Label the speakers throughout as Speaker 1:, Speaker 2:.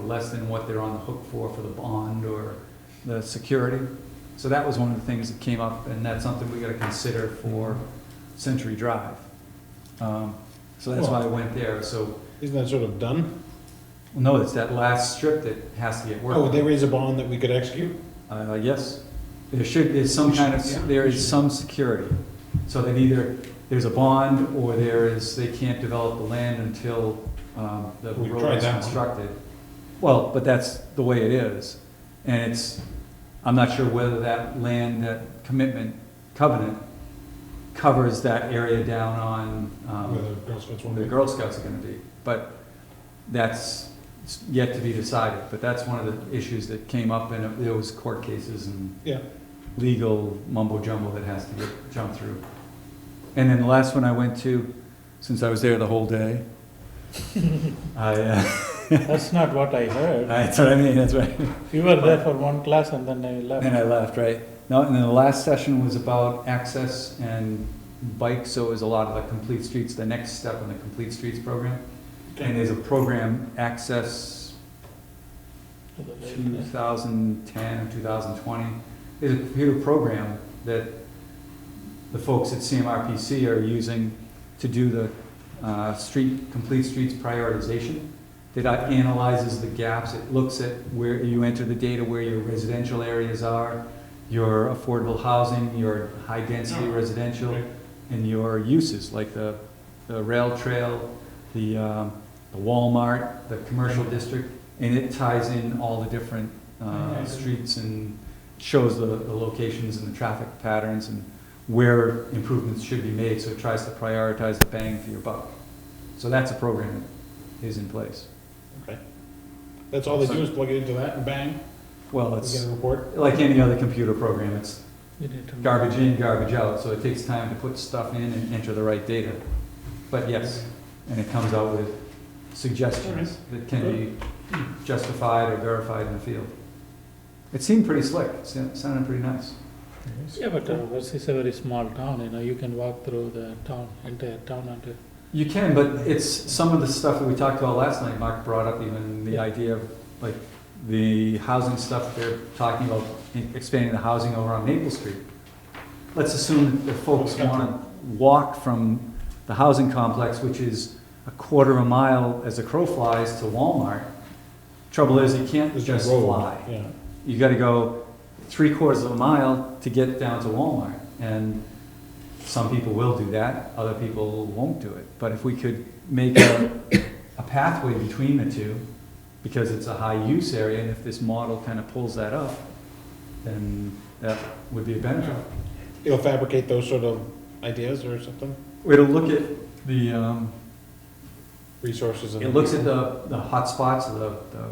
Speaker 1: less than what they're on the hook for, for the bond or the security. So that was one of the things that came up, and that's something we gotta consider for Century Drive. Um, So that's why I went there, so,
Speaker 2: Isn't that sort of done?
Speaker 1: no, it's that last strip that has to get worked.
Speaker 2: Oh,
Speaker 1: on.
Speaker 2: they raise a bond that we could execute?
Speaker 1: Uh, yes, there should, there's some kind
Speaker 2: Yeah.
Speaker 1: of, there is some security. So that either there's a bond, or there is, they can't develop the land until, um, the
Speaker 2: We've
Speaker 1: road
Speaker 2: tried
Speaker 1: is
Speaker 2: that one.
Speaker 1: constructed. Well, but that's the way it is, and it's, I'm not sure whether that land, that commitment covenant covers that area down on, um,
Speaker 2: Whether Girl Scouts
Speaker 1: when
Speaker 2: want
Speaker 1: the
Speaker 2: to.
Speaker 1: Girl Scouts are gonna be, but that's yet to be decided, but that's one of the issues that came up and there was court cases and
Speaker 2: Yeah.
Speaker 1: legal mumbo jumbo that has to get jumped through. And then the last one I went to, since I was there the whole day, I, uh,
Speaker 3: That's not what I heard.
Speaker 1: that's what I mean, that's right.
Speaker 3: You were there for one class and then I left.
Speaker 1: Then I left, right? No, and then the last session was about access and bikes, so it was a lot of the complete streets, the next step in the complete streets program. And there's a program, Access
Speaker 3: To the late night.
Speaker 1: 2010 or 2020, there's a computer program that the folks at CMRPC are using to do the uh, street, complete streets prioritization. That analyzes the gaps, it looks at where you enter the data, where your residential areas are, your affordable housing, your high-density
Speaker 2: Yeah.
Speaker 1: residential,
Speaker 2: Right.
Speaker 1: and your uses, like the, the rail trail, the, um, the Walmart, the commercial district, and it ties in all the different, uh,
Speaker 2: Right.
Speaker 1: streets and shows the, the locations and the traffic patterns and where improvements should be made, so it tries to prioritize the bang for your buck. So that's a program that is in place.
Speaker 2: Okay. That's all they do is plug it into that and bang,
Speaker 1: Well,
Speaker 2: we
Speaker 1: it's
Speaker 2: get a report.
Speaker 1: like any other computer program, it's
Speaker 3: You need to-
Speaker 1: garbage in, garbage out, so it takes time to put stuff in and enter the right data. But yes, and it comes out with suggestions that can be justified or verified in the field. It seemed pretty slick, It sound- sounded pretty nice.
Speaker 3: Yeah, but uh, this is a very small town, you know, you can walk through the town, entire town uh, until.
Speaker 1: You can, but it's some of the stuff that we talked about last night, Mark brought up even the idea of, like, the housing stuff they're talking about, expanding the housing over on Maple Street. Let's assume that the folks wanna walk from the housing complex, which is a quarter of a mile as a crow flies to Walmart. Trouble is, you can't
Speaker 2: There's no
Speaker 1: just
Speaker 2: road.
Speaker 1: fly
Speaker 2: Yeah.
Speaker 1: you gotta go three quarters of a mile to get down to Walmart. And some people will do that, other people won't do it. But if we could make a, a pathway between the two, because it's a high-use area, and if this model kind of pulls that up, then that would be a benefit.
Speaker 2: It'll fabricate those sort of ideas or something,
Speaker 1: It'll look at the, um,
Speaker 2: resources. and-
Speaker 1: It looks at the, the hotspots, the, the,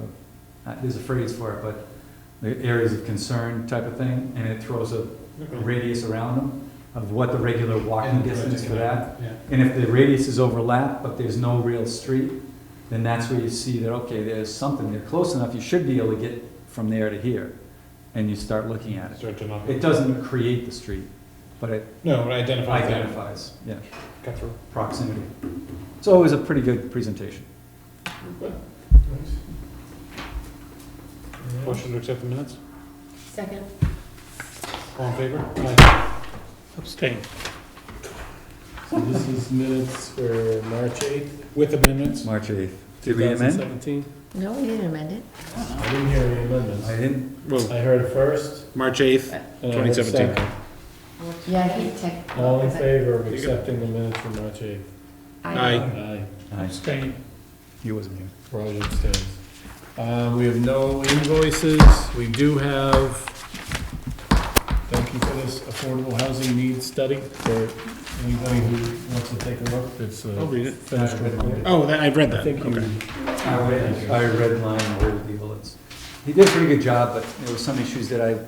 Speaker 1: uh, there's a phrase for it, but the areas of concern type of thing, and it throws a a radius around them of what the regular walking
Speaker 2: And-
Speaker 1: distance for that.
Speaker 2: Yeah.
Speaker 1: And if the radius is overlapped, but there's no real street, then that's where you see that, okay, there's something, they're close enough, you should be able to get from there to here, and you start looking at it.
Speaker 2: Start to not-
Speaker 1: It doesn't create the street, but it
Speaker 2: No, it identifies that,
Speaker 1: identifies, yeah,
Speaker 2: cut through.
Speaker 1: proximity. It's always a pretty good presentation.
Speaker 2: Motion to accept the minutes,
Speaker 4: Second.
Speaker 2: all in favor? Aye.
Speaker 3: Abstain.
Speaker 5: So this is minutes for March eighth.
Speaker 2: With amendments?
Speaker 1: March 8th. Did we amend?
Speaker 5: 2017.
Speaker 4: No, we didn't amend it.
Speaker 5: I didn't hear any amendments.
Speaker 1: I didn't.
Speaker 5: I heard it first.
Speaker 2: March eighth,
Speaker 1: Uh,
Speaker 5: and I heard second.
Speaker 4: Yeah, he checked.
Speaker 5: All in favor of accepting the minutes for March eighth?
Speaker 2: Aye.
Speaker 5: Aye.
Speaker 3: Abstain.
Speaker 1: He wasn't here.
Speaker 5: Roger abstains. Uh, we have no invoices. We do have, thank you for this affordable housing needs study for anybody who wants to take a look. It's
Speaker 2: I'll
Speaker 5: a
Speaker 2: read it.
Speaker 5: fast report.
Speaker 2: Oh, that, I've read
Speaker 5: I
Speaker 2: that,
Speaker 5: think
Speaker 2: okay.
Speaker 5: you
Speaker 1: I read, I read line the whole deal, it's, he did a pretty good job, but there were some issues that I,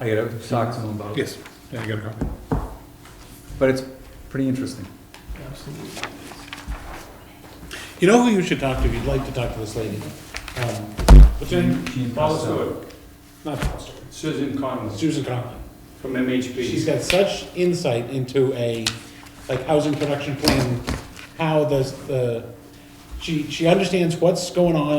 Speaker 1: I gotta talk to him about.
Speaker 2: Yes, yeah, I got a copy.
Speaker 1: But it's pretty interesting.
Speaker 2: You know who you should talk to if you'd like to talk to this lady? Um, What's her name?
Speaker 1: Gene
Speaker 6: Paula
Speaker 1: Costello.
Speaker 6: Stewart,
Speaker 2: Not Foster.
Speaker 6: Susan Conlon
Speaker 2: Susan Conlon.
Speaker 6: from MHP.
Speaker 2: She's got such insight into a, like, housing production plan, how does the, she, she understands what's going on